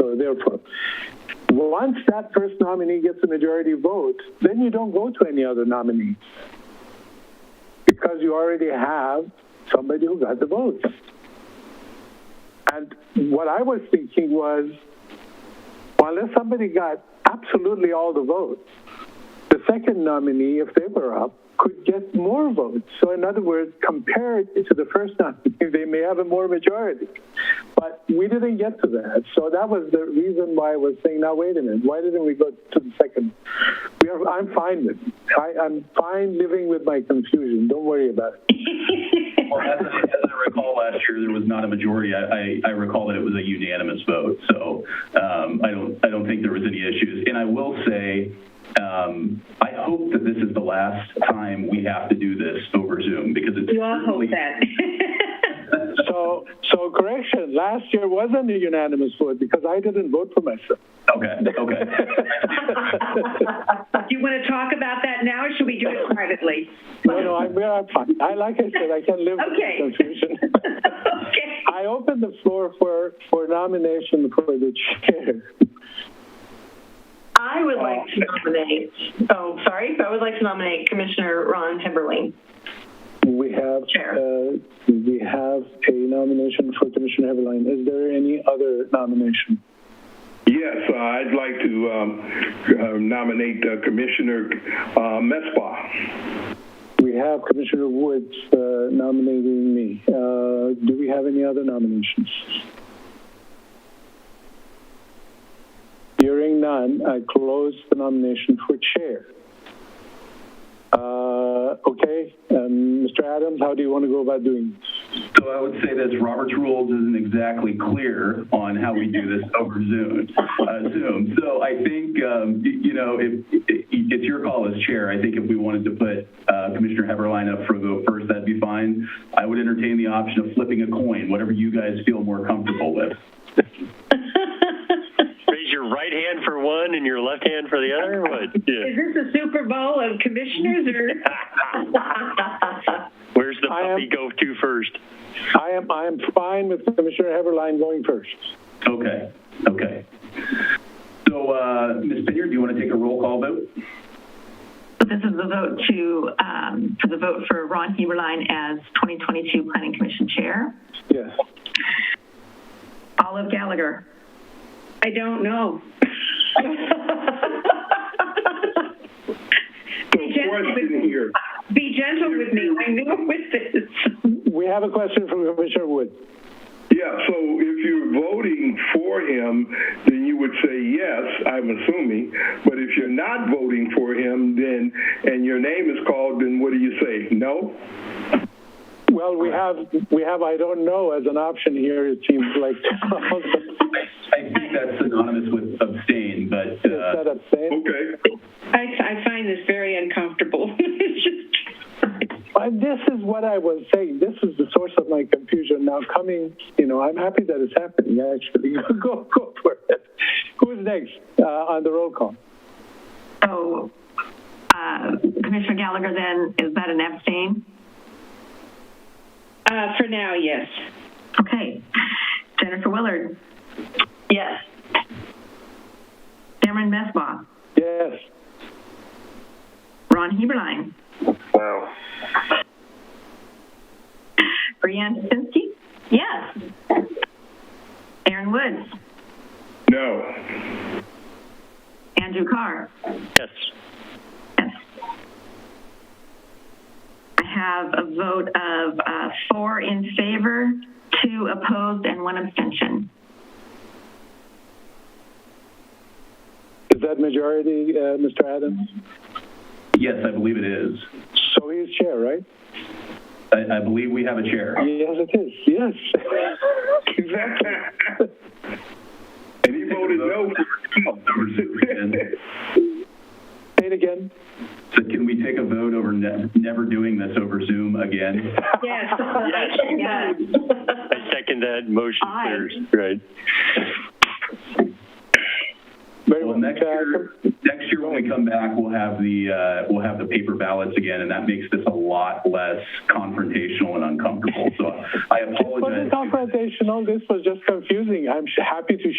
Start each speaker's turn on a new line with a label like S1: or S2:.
S1: or they're from. Once that first nominee gets a majority vote, then you don't go to any other nominee because you already have somebody who got the votes. And what I was thinking was, well, unless somebody got absolutely all the votes, the second nominee, if they were up, could get more votes. So, in other words, compared to the first nominee, they may have a more majority. But we didn't get to that. So, that was the reason why I was saying, now, wait a minute, why didn't we go to the second? We are, I'm fine with it. I, I'm fine living with my confusion. Don't worry about it.
S2: Well, as I, as I recall, last year there was not a majority. I, I, I recall that it was a unanimous vote, so um, I don't I don't think there was any issues. And I will say, um, I hope that this is the last time we have to do this over Zoom because it's
S3: You all hope
S2: certainly-
S3: that.
S1: So, so correction, last year wasn't a unanimous vote because I didn't vote for myself.
S2: Okay, okay.
S3: Do you want to talk about that now, or should we do it privately?
S1: No, no, I'm, I'm fine. I, like I said, I can live
S3: Okay.
S1: with the confusion.
S3: Okay.
S1: I open the floor for, for nomination for the chair.
S4: I would like to nominate, oh, sorry, I would like to nominate Commissioner Ron Heberling.
S1: We have,
S4: Chair.
S1: uh, we have a nomination for Commissioner Heberlein. Is there any other nomination?
S5: Yes, uh, I'd like to um, uh, nominate uh, Commissioner uh, Mesbah.
S1: We have Commissioner Woods uh, nominating me. Uh, Do we have any other nominations? Hearing none, I close the nomination for chair. Uh, Okay, um, Mr. Adams, how do you want to go about doing this?
S2: So I would say this, Robert's rules isn't exactly clear on how we do this over Zoom. Uh, Zoom. So I think, um, y- you know, if, i- it's your call as chair. I think if we wanted to put uh, Commissioner Heberlein up for a vote first, that'd be fine. I would entertain the option of flipping a coin, whatever you guys feel more comfortable with.
S6: Raise your right hand for one and your left hand for the other. What?
S3: Is
S6: Yeah.
S3: this a Super Bowl of commissioners, or?
S6: Where's the
S1: I
S6: puppy
S1: am-
S6: go to first?
S1: I am, I am fine with Commissioner Heberlein going first.
S2: Okay, okay. So, uh, Ms. Pinyard, do you want to take a roll call vote?
S7: This is the vote to, um, for the vote for Ron Heberlein as 2022 Planning Commission Chair.
S1: Yes.
S7: Olive Gallagher.
S3: I don't know. Be gentle
S5: Question
S3: with-
S5: here.
S3: Be gentle with me, I'm new with this.
S1: We have a question from Commissioner Woods.
S5: Yeah, so if you're voting for him, then you would say yes, I'm assuming. But if you're not voting for him, then, and your name is called, then what do you say? No?
S1: Well, we have, we have, I don't know, as an option here, it seems like.
S2: I, I think that's synonymous with abstain, but,
S1: Is
S2: uh,
S1: that abstain?
S5: Okay.
S3: I, I find this very uncomfortable. It's just-
S1: Uh, This is what I was saying. This is the source of my confusion. Now coming, you know, I'm happy that it's happening, actually. Go, go for it. Who's next uh, on the roll call?
S7: So uh, Commissioner Gallagher then, is that an abstain?
S3: Uh, for now, yes.
S7: Okay. Jennifer Willard.
S4: Yes.
S7: Cameron Mesbah.
S1: Yes.
S7: Ron Heberlein.
S5: Wow.
S7: Brianne Jasinski.
S4: Yes.
S7: Aaron Woods.
S5: No.
S7: Andrew Carr.
S6: Yes.
S7: Yes. I have a vote of uh, four in favor, two opposed, and one abstention.
S1: Is that majority, uh, Mr. Adams?
S2: yes, I believe it is.
S1: So he's chair, right?
S2: I, I believe we have a chair.
S1: Yes, it is. Yes.
S5: Exactly. And he voted no.
S2: Over Zoom again.
S1: Say it again.
S2: So can we take a vote over ne- never doing this over Zoom again?
S3: Yes.
S6: Yes.
S3: Yes.
S6: I second that motion.
S7: Aye.
S6: There's- Right.
S1: Very
S2: Well,
S1: well.
S2: next year, next year when we come back, we'll have the, uh, we'll have the paper ballots again, and that makes this a lot less confrontational and uncomfortable. So I
S1: It wasn't
S2: apologize.
S1: confrontational. This was just confusing. I'm sh- happy to